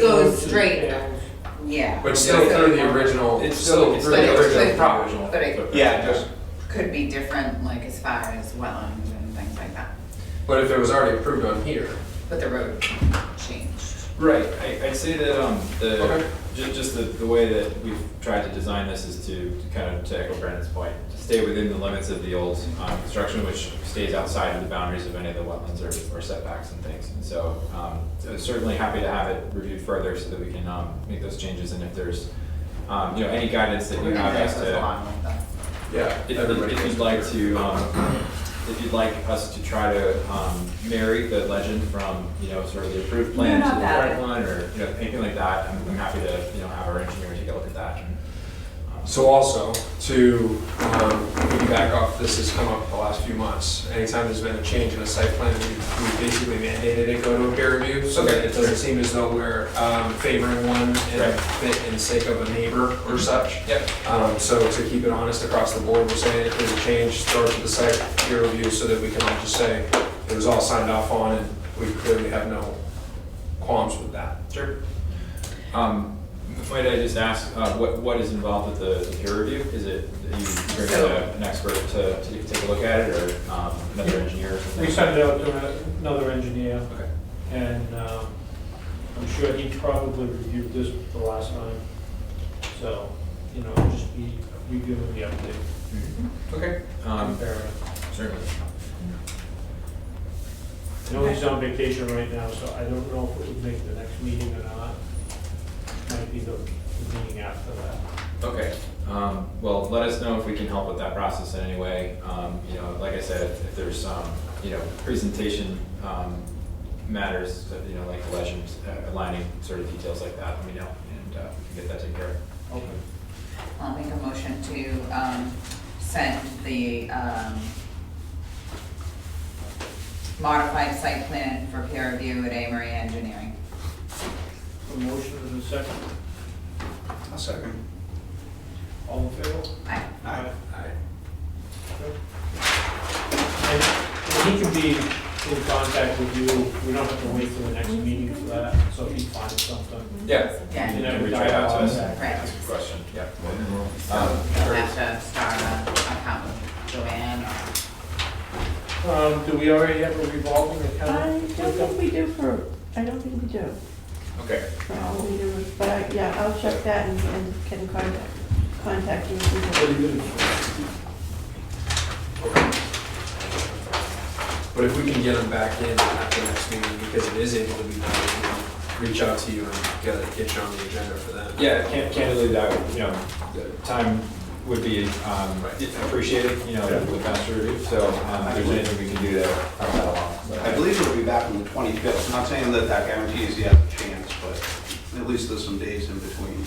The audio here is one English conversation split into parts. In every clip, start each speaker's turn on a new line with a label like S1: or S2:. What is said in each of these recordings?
S1: goes
S2: to the
S1: straight.
S2: panels.
S1: Yeah.
S3: But still through the original,
S2: It's still-
S3: still
S2: it's
S3: through the
S1: still-
S3: original
S1: but-
S3: property.
S1: but it-
S4: Yeah, just,
S1: Could be different, like as far as wetlands and things like that,
S3: But if it was already approved on here,
S1: but the road changed.
S5: Right, I, I'd say that, um,
S3: Okay.
S5: the, just, just the, the way that we've tried to design this is to to kind of, to echo Brandon's point, to stay within the limits of the old, um, construction, which stays outside of the boundaries of any of the wetlands or, or setbacks and things. And so, um, so certainly happy to have it reviewed further so that we can, um, make those changes, and if there's, um, you know, any guidance that you
S1: We're gonna
S5: have as
S1: go
S5: to
S1: along with that.
S3: yeah,
S5: if,
S3: everybody.
S5: if
S3: goes
S5: you'd
S3: through
S5: like
S3: here.
S5: to, um, if you'd like us to try to, um, marry the legend from, you know, sort of the approved plan
S1: No,
S5: to
S1: not
S5: the
S1: that.
S5: current one, or, you know, anything like that, I'm, I'm happy to, you know, have our engineer take a look at that. and, um,
S3: So also, to um, piggyback off, this has come up the last few months, anytime there's been a change in a site plan, we we basically mandated it go to a peer review, so that it doesn't seem as though we're um, favoring one in
S5: Right. Mm-hmm.
S3: fit- in the sake of a neighbor or such.
S5: Yep,
S3: Um, So to keep it honest across the board, we're saying if there's a change, throw it to the site peer review, so that we can all just say, it was all signed off on, and we clearly have no qualms with that.
S5: sure. Um, might I just ask, uh, what, what is involved with the, the peer review? Is it, that you bring
S1: So-
S5: in a- an expert to, to take a look at it, or, um, another engineer or something?
S2: We sent it out to another engineer,
S5: Okay,
S2: and um, I'm sure he probably reviewed this the last time. So, you know, just be reviewing the update,
S3: Okay.
S5: um,
S2: comparing.
S5: certainly.
S2: I know he's on vacation right now, so I don't know if it would make the next meeting or not. Might be the the meeting after that.
S5: Okay, um, well, let us know if we can help with that process in any way. Um, you know, like I said, if there's, um, you know, presentation, um, matters, you know, like legends, uh, aligning sort of details like that, let me know, and, uh, we can get that taken care of.
S2: Okay.
S1: I'll make a motion to, um, send the, um, modified site plan for peer review at Amory Engineering.
S2: A motion and a second.
S4: a second.
S2: All in favor?
S1: I,
S4: Aye.
S2: And and he can be in contact with you, we don't have to wait till the next meeting for that, so if he finds something.
S5: Yeah.
S1: yeah,
S5: You
S1: you'll
S5: can reach out to us, and
S1: Right.
S5: ask a question, yeah. Um,
S1: have to start a account with Joanne or,
S2: Um, do we already have a revolving account?
S6: I don't think we do for, I don't think we do.
S5: Okay,
S6: for all we do, But I, yeah, I'll check that and, and can contact, contact you. if we do.
S2: What do you do?
S3: But if we can get them back in at the next meeting, because it is able to be done, we can reach out to you and get it, get you on the agenda for that.
S5: yeah, can candidly, that, would, you know, the time would be, um, appreciated, you know, with master review, so, um, if there's anything we can do to help that along. so-
S4: I believe it'll be back on the 25th. Not saying that that guarantees you have a chance, but at least there's some days in between.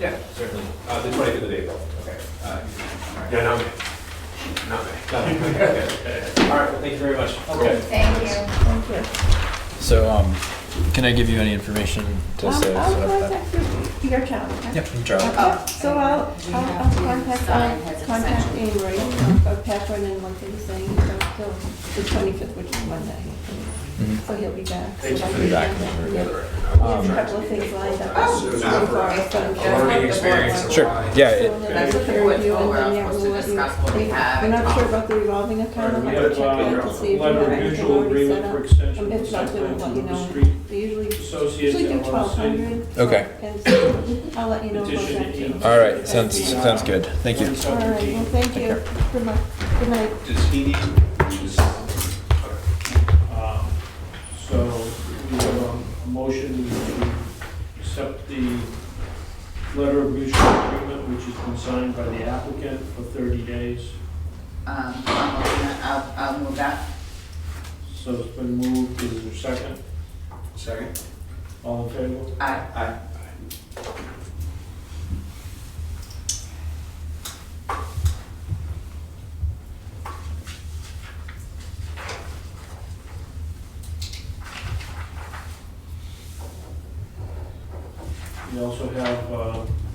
S5: Yeah, certainly. Uh, the twenty-fifth of April, okay. Uh,
S3: Yeah, not me, not me.
S5: All right, well, thank you very much.
S2: Okay.
S1: thank you.
S6: Thank you.
S5: So, um, can I give you any information to
S6: Um,
S5: say?
S6: I'll contact you, your town. okay?
S5: Yep, you try.
S6: Okay, So I'll, I'll, I'll contact, I'll contact Amory, or Catherine, and what they were saying, until the twenty-fifth, which is Monday. So he'll be back.
S3: Thank you for the
S5: back
S6: number.
S3: Yeah,
S6: Yeah,
S3: right.
S6: there's a couple of things lined up.
S1: Oh,
S6: So
S3: it's
S6: far,
S3: not
S1: for-
S6: so-
S1: it's
S3: A learning
S1: Yeah.
S3: experience. of
S5: Sure,
S3: why-
S5: yeah,
S6: so
S5: it,
S6: then
S1: That's
S6: we'll
S1: what
S6: review
S1: we're
S6: and then,
S1: for,
S6: yeah,
S1: we're
S6: we'll
S1: supposed to
S6: let you-
S1: discuss what we have
S6: We're
S1: and
S6: not sure
S1: talk.
S6: about the revolving account,
S2: Alright,
S6: I'm
S2: we
S6: gonna
S2: have,
S6: check that
S2: uh,
S6: to see if you have
S2: letter of
S6: anything
S2: mutual
S6: already set
S2: agreement
S6: up.
S2: for extension
S6: Um,
S2: of
S6: If not,
S2: site
S6: then
S2: plan
S6: we'll
S2: to
S6: let you
S2: River
S6: know.
S2: Street
S6: They usually,
S2: Associates
S6: usually do
S2: LLC.
S6: twelve hundred.
S7: Okay.
S6: And so I'll let you know about
S2: Petition
S6: that too.
S2: eight.
S7: All right, sounds, sounds good. Thank you.
S6: All right, well, thank you. Good night. Good night.
S4: Does he need, does-
S2: Um, So we have a motion to accept the letter of mutual agreement, which has been signed by the applicant for 30 days.
S1: Um, I'll, move that- I'll, I'll move that.
S2: So it's been moved, is there a second?
S4: second?
S2: All in favor?
S1: I,
S4: Aye.
S2: We also have uh,